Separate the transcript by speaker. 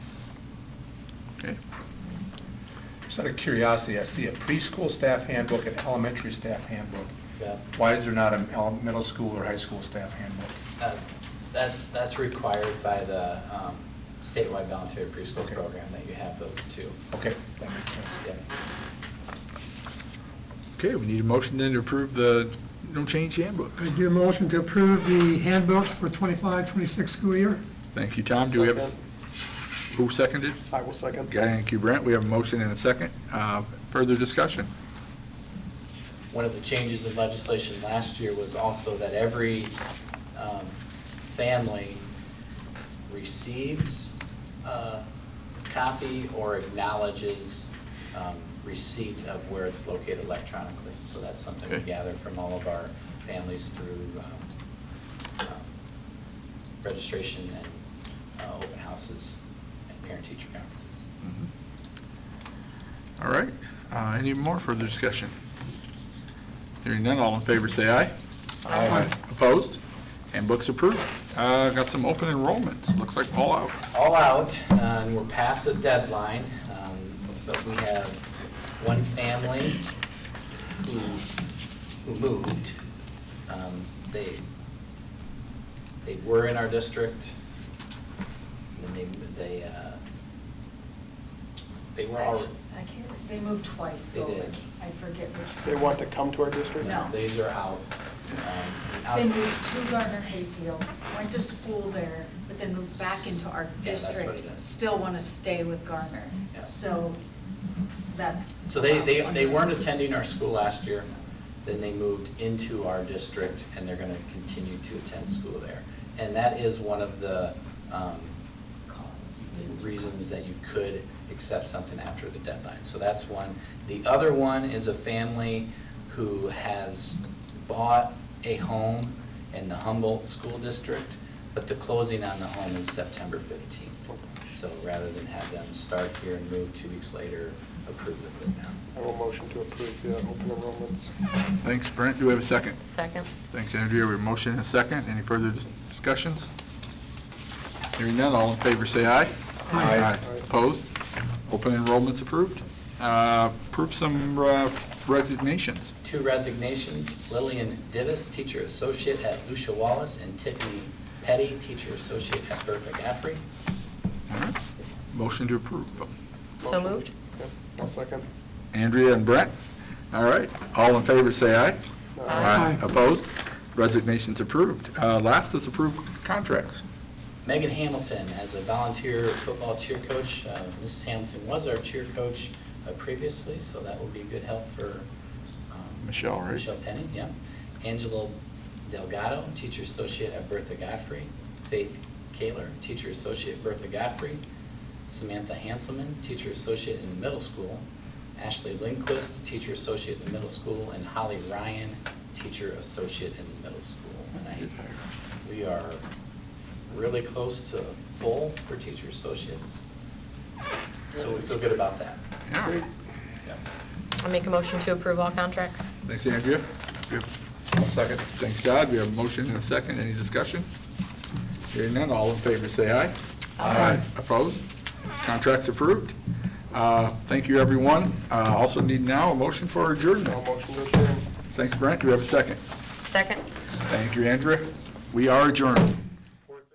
Speaker 1: Okay.
Speaker 2: Just out of curiosity, I see a preschool staff handbook and elementary staff handbook.
Speaker 3: Yeah.
Speaker 2: Why is there not a el- middle school or high school staff handbook?
Speaker 3: Uh, That, that's required by the um, statewide voluntary preschool
Speaker 2: Okay.
Speaker 3: program, that you have those two.
Speaker 2: Okay, that makes sense.
Speaker 3: Yeah.
Speaker 1: Okay, we need a motion then to approve the no change handbook.
Speaker 4: I do a motion to approve the handbooks for 25, 26 school year.
Speaker 1: Thank you, Tom. Do we have, a-
Speaker 5: Second.
Speaker 1: who seconded?
Speaker 5: I will second.
Speaker 1: Okay, Thank you, Brent. We have a motion and a second. Uh, Further discussion?
Speaker 3: One of the changes in legislation last year was also that every um, family receives uh, a copy or acknowledges um, receipt of where it's located electronically. So that's something we
Speaker 1: Okay.
Speaker 3: gather from all of our families through um, um, registration and uh, open houses and parent-teacher conferences.
Speaker 5: Mm-hmm.
Speaker 1: All right, Uh, any more further discussion? Hearing none, all in favor, say aye.
Speaker 2: Aye.
Speaker 1: Opposed? Handbook's approved. Uh, Got some open enrollments, looks like all out.
Speaker 3: all out, uh, and we're past the deadline, um, but we have one family who, who moved. Um, They, they were in our district, and then they, they, uh, they were already.
Speaker 6: I can't, they moved twice, so
Speaker 3: They
Speaker 6: I
Speaker 3: did.
Speaker 6: can't- I forget which.
Speaker 5: They want to come to our district?
Speaker 6: No.
Speaker 3: These are out. um, out-
Speaker 6: They moved to Gardner Hayfield, went to school there, but then moved back into our
Speaker 3: Yeah, that's what it
Speaker 6: district.
Speaker 3: is.
Speaker 6: Still want to stay with Gardner,
Speaker 3: Yeah.
Speaker 6: so that's.
Speaker 3: So they, they,
Speaker 6: about
Speaker 3: they weren't
Speaker 6: 100.
Speaker 3: attending our school last year, then they moved into our district, and they're gonna continue to attend school there. And that is one of the, um, reasons that you could accept something after the deadline. So that's one. The other one is a family who has bought a home in the Humboldt School District, but the closing on the home is September fifteenth. So rather than have them start here and move two weeks later, approve it right now.
Speaker 5: I will motion to approve the open enrollments.
Speaker 1: Thanks, Brent. Do we have a second?
Speaker 7: Second.
Speaker 1: Thanks, Andrea. We have a motion and a second. Any further dis- discussions? Hearing none, all in favor, say aye.
Speaker 2: Aye.
Speaker 1: Opposed? Open enrollment's approved. Uh, Approve some uh, resignations.
Speaker 3: Two resignations, Lillian Divis, teacher associate at Lucia Wallace, and Tiffany Petty, teacher associate at Burt McCaffrey.
Speaker 1: All right. Motion to approve.
Speaker 7: So
Speaker 5: Motion.
Speaker 7: moved.
Speaker 5: Yep, I'll second.
Speaker 1: Andrea and Brent. All right. All in favor, say aye.
Speaker 5: Aye.
Speaker 4: Aye.
Speaker 1: Opposed? Resignations approved. Uh, Last is approved contracts.
Speaker 3: Megan Hamilton as a volunteer football cheer coach. Uh, Mrs. Hamilton was our cheer coach uh, previously, so that will be good help for. um,
Speaker 1: Michelle, right?
Speaker 3: Michelle Penning, yeah. Angela Delgado, teacher associate at Bertha Godfrey. Faith Kaler, teacher associate at Bertha Godfrey. Samantha Hanselman, teacher associate in the middle school. Ashley Lindquist, teacher associate in the middle school. And Holly Ryan, teacher associate in the middle school. And I, we are really close to full for teacher associates. So we feel good about that.
Speaker 1: Yeah.
Speaker 5: Great.
Speaker 3: Yeah.
Speaker 7: I make a motion to approve all contracts.
Speaker 1: Thanks, Andrea. We have
Speaker 2: I'll second.
Speaker 1: Thanks, Todd. We have a motion and a second. Any discussion? Hearing none, all in favor, say aye.
Speaker 2: Aye.
Speaker 1: Opposed? Contracts approved. Uh, Thank you, everyone. Uh, Also need now a motion for
Speaker 5: I'll
Speaker 1: adjournment.
Speaker 5: motion to adjourn.
Speaker 1: Thanks, Brent. Do we have a second?
Speaker 7: Second.
Speaker 1: Thank you, Andrea. We are adjourned.